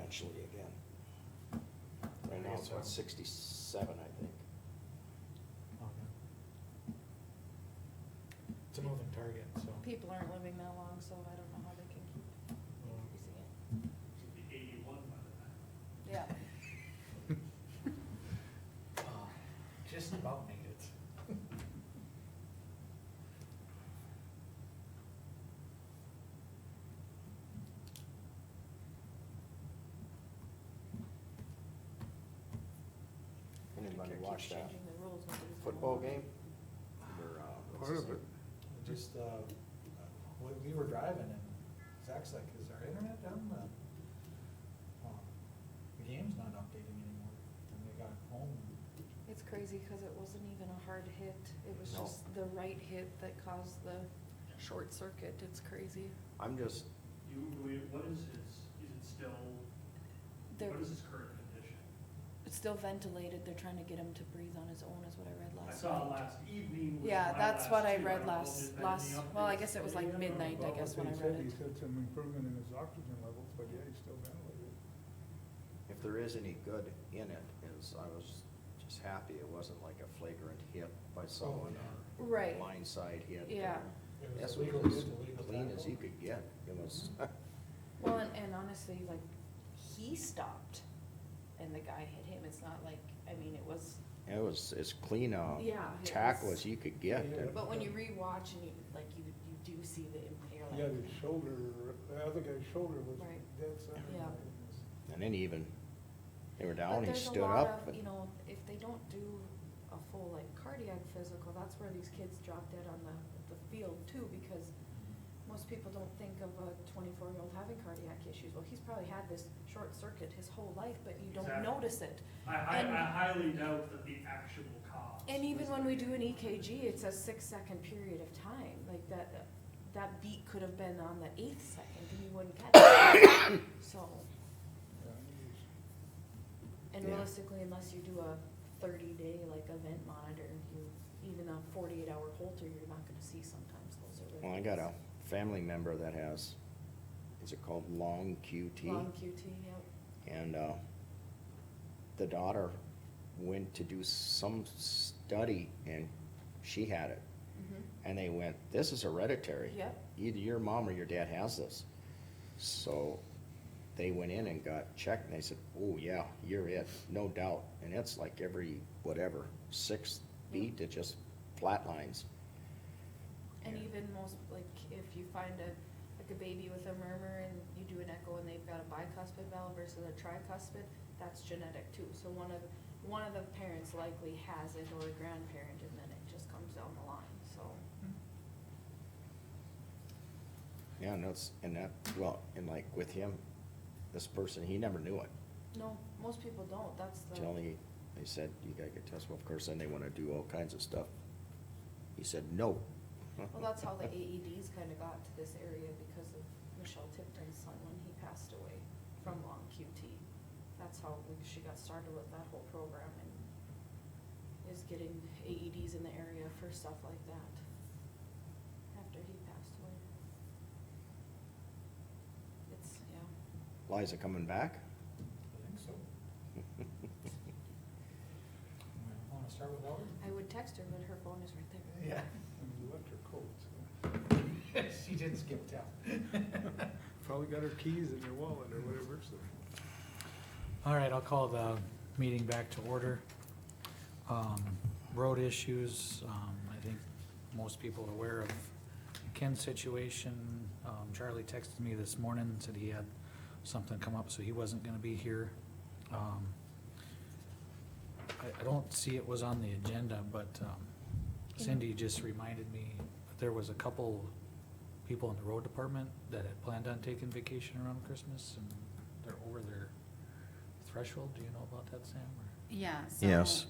actually again. Right now it's about sixty-seven, I think. It's a moving target, so. People aren't living that long, so I don't know how they can keep um, using it. Should be eighty-one by the time. Yeah. Just about made it. Anybody Medicare keeps watch that Changing the rules. nobody's gonna football want it. game? Or, uh, what's Part his of name? it. Just, uh, we, we were driving and Zach's like, is our internet down? The um, the game's not updating anymore. And we got home. It's crazy because it wasn't even a hard hit. It was No. just the right hit that caused the short circuit. It's crazy. I'm just, You, we- what is its, is it still, They're, what is its current condition? it's still ventilated. They're trying to get him to breathe on his own is what I read I last night. saw last evening was Yeah, my that's what last I two. read don't know if there's last, been any last, well, I updates. guess it was like Yeah. midnight, I Well, guess, what when I he read said, it. He said some improvement in his oxygen levels, but yeah, he's still ventilated. if there is any good in it, is I was just happy it wasn't like a flagrant hit by someone or Right. blindside hit. Yeah. It was That's a what legal it was, hit, a legal clean as tackle. you could get. It was, Well, and, and honestly, like, he stopped and the guy hit him. It's not like, I mean, it was, it was as clean a Yeah, it tackle was- as you could get. Yeah, and- but when you rewatch and you, like, you, you do see the, imp- you're Yeah, like, his shoulder, the other guy's shoulder was Right. dead center. Yeah. And then he even, they were But down, he there's a stood lot up. of, and- you know, if they don't do a full like cardiac physical, that's where these kids drop dead on the, the field too, because most people don't think of a twenty-four-year-old having cardiac issues. Well, he's probably had this short circuit his whole life, but you don't Exactly. notice it. I, I, And- I highly doubt that the actual cause. And even was when we the- do an EKG, it's a six-second period of time, like that, that beat could have been on the eighth second and you wouldn't catch it. So, Yeah, he was- and Yeah. realistically, unless you do a thirty-day like event monitor, you, even a forty-eight hour Holter, you're not gonna see sometimes those are. Well, I got a family member that has, is it called long QT? Long QT, yep. And, uh, the daughter went to do some study and she had it. And they went, this is hereditary. Yep. Either your mom or your dad has this. So they went in and got checked and they said, oh yeah, you're it, no doubt. And it's like every, whatever, sixth beat, it just flatlines. And Yeah. even most, like, if you find a, like a baby with a murmur and you do an echo and they've got a bicuspid valve versus a tricuspid, that's genetic too. So one of, one of the parents likely has it or a grandparent and then it just comes down the line, so. Yeah, and that's, and that, well, and like with him, this person, he never knew it. No, most people don't, that's the. Till he, they said, you gotta get tested, well, of course, then they wanna do all kinds of stuff. He said, no. Hmm. Well, that's how the E AEDs kind of got to this area because of Michelle Tipton's son when he passed away from long QT. That's how we- she got started with that whole program and is getting AEDs in the area for stuff like that after he passed away. It's, yeah. Liza coming back? I think so. Want to start with Elder? I would text her, but her phone is right there. Yeah. And he left her coat, so. She didn't skip town. Probably got her keys in her wallet or whatever, so. All right, I'll call the meeting back to order. Um, Road issues, um, I think most people are aware of Ken's situation. Um, Charlie texted me this morning, said he had something come up, so he wasn't gonna be here. Um, I, I don't see it was on the agenda, but um, Cindy just reminded me, that there was a couple people in the road department that had planned on taking vacation around Christmas, and they're over their threshold, do you know about that, Sam? or- Yeah, so. Yes.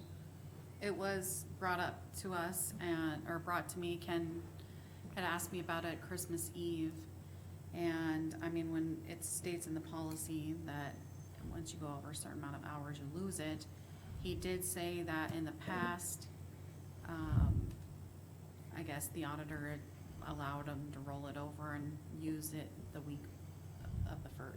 It was brought up to us and, or brought to me, Ken had asked me about it Christmas Eve. And, I mean, when it states in the policy that once you go over a certain amount of hours, you lose it. He did say that in the past, um, I guess the auditor had allowed him to roll it over and use it the week of the first,